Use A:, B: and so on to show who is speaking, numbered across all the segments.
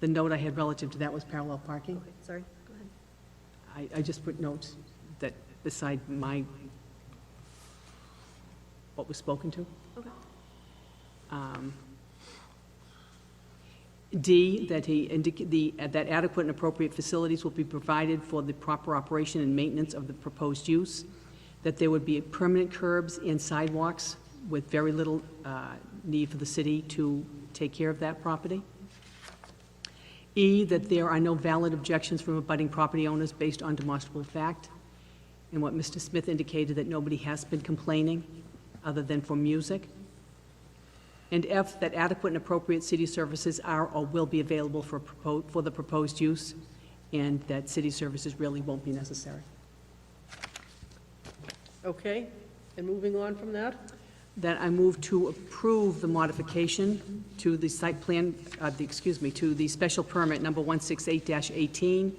A: the note I had relative to that was parallel parking.
B: Okay, sorry, go ahead.
A: I, I just put notes that beside my, what was spoken to.
B: Okay.
A: Um, D, that he indic, the, uh, that adequate and appropriate facilities will be provided for the proper operation and maintenance of the proposed use, that there would be permanent curbs and sidewalks with very little uh, need for the city to take care of that property. E, that there are no valid objections from abutting property owners based on demonstrable fact, and what Mr. Smith indicated, that nobody has been complaining, other than for music. And F, that adequate and appropriate city services are or will be available for propo for the proposed use, and that city services really won't be necessary.
C: Okay, and moving on from that,
A: That I move to approve the modification to the site plan, uh, the, excuse me, to the special permit number 168-18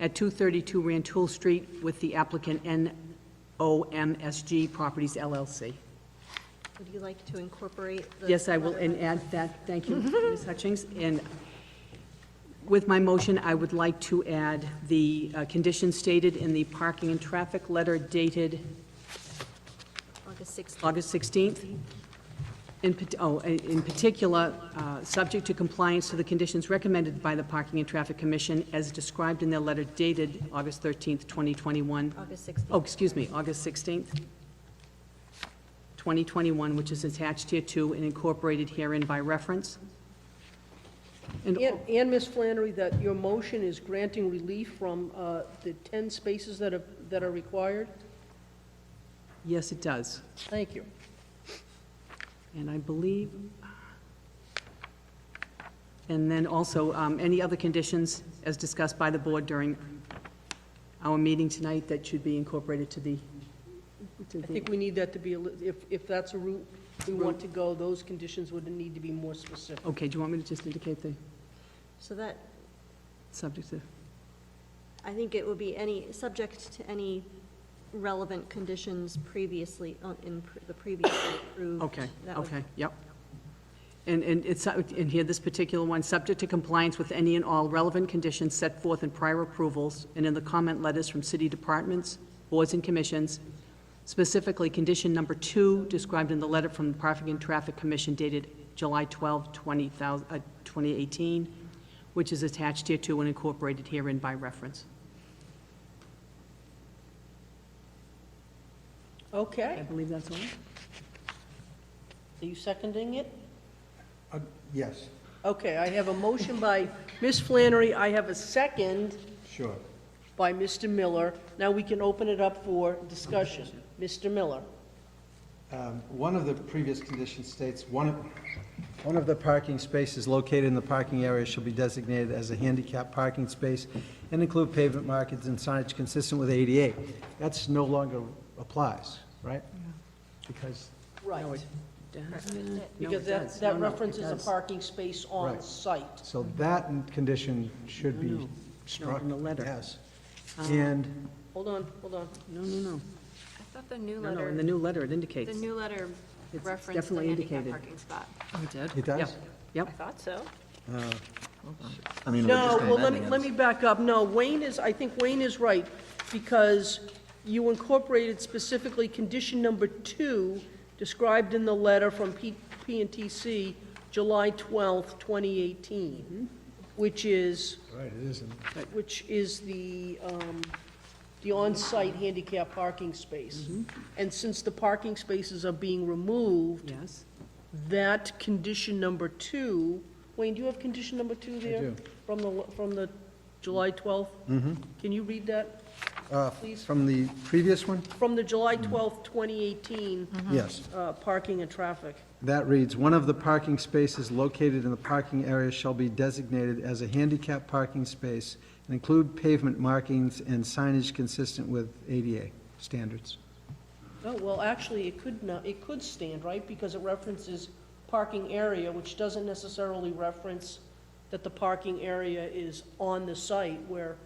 A: at 232 Rantoul Street with the applicant NOMSG Properties LLC.
B: Would you like to incorporate the?
A: Yes, I will,
B: letter
A: and add that, thank you, Ms. Hutchings. And with my motion, I would like to add the uh, conditions stated in the parking and traffic letter dated
B: of August 16th?
A: August 16th. In, pat- oh, i- in particular, uh, subject to compliance to the conditions recommended by the Parking and Traffic Commission as described in their letter dated August 13th, 2021.
B: August 16th.
A: Oh, excuse me, August 16th, 2021, which is attached here to and incorporated herein by reference. And,
C: and, and Ms. Flannery, that your motion is granting relief from uh, the 10 spaces that are, that are required?
A: yes, it does.
C: Thank you.
A: And I believe, and then also, um, any other conditions as discussed by the board during our meeting tonight that should be incorporated to the, to
C: I
A: the,
C: think we need that to be, a li- if, if that's a route we want to go, those conditions would need to be more specific.
A: okay, do you want me to just indicate the
B: So that,
A: subject of?
B: I think it would be any, subject to any relevant conditions previously, uh, in pr- the previously approved.
A: Okay,
B: That would-
A: okay, yep. And, and it's, and here, this particular one, subject to compliance with any and all relevant conditions set forth in prior approvals and in the comment letters from city departments, boards and commissions, specifically condition number two described in the letter from the Traffic and Traffic Commission dated July 12, 20,000 uh, 2018, which is attached here to and incorporated herein by reference. I
C: Okay,
A: believe that's all.
C: are you seconding it?
D: Uh, Yes,
C: Okay, I have a motion by Ms. Flannery, I have a second
D: sure.
C: by Mr. Miller. Now we can open it up for discussion. Mr. Miller?
D: Um, One of the previous conditions states, one, of- one of the parking spaces located in the parking area shall be designated as a handicap parking space and include pavement markings and signage consistent with ADA. That's no longer applies, right? Because,
C: Right.
A: No,
C: Because
A: it
C: that,
A: does. No,
C: that
A: no, it
C: references a
A: does.
C: parking space on
D: Right.
C: site.
D: so that condition should
A: No, no.
D: be
A: No,
D: struck.
A: in the letter. Um,
D: Yes. And,
C: Hold on, hold on.
A: No, no, no,
E: I thought the new
A: no, no, in
E: letter,
A: the new letter, it indicates.
E: the new letter
A: it's
E: referenced the
A: definitely
E: handicap
A: indicated.
E: parking spot.
A: Oh, it did?
D: It does?
A: Yep,
E: I
A: Yep,
E: thought so.
F: I mean, we're
C: No,
F: just
C: well, let me,
F: amending
C: let me back up. No, Wayne is, I think Wayne is right, because you incorporated specifically condition number two described in the letter from P, PNTC, July twelfth, twenty eighteen, which is,
D: right, it isn't.
C: which is the, um, the on-site handicap parking space. And since the parking spaces are being removed,
A: yes.
C: that condition number two, Wayne, do you have condition number two there?
D: do.
C: From the, from the July 12th? Mm-hmm. Can you read that?
D: Uh, From the previous one?
C: From the July 12th, 2018,
A: Uh-huh.
D: Yes.
C: uh, parking and traffic.
D: That reads, "One of the parking spaces located in the parking area shall be designated as a handicap parking space and include pavement markings and signage consistent with ADA standards."
C: Oh, well, actually, it could not, it could stand, right? Because it references parking area, which doesn't necessarily reference that the parking area is on the site where,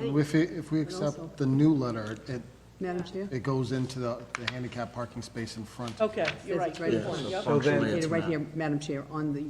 G: If we, if we accept the new letter, it,
A: Madam Chair?
G: it goes into the the handicap parking space in front.
C: okay, you're right.
A: It's right
C: good
A: in
C: point,
A: front.
C: yep.
F: So then-
A: Indicated Right here, Madam Chair, on the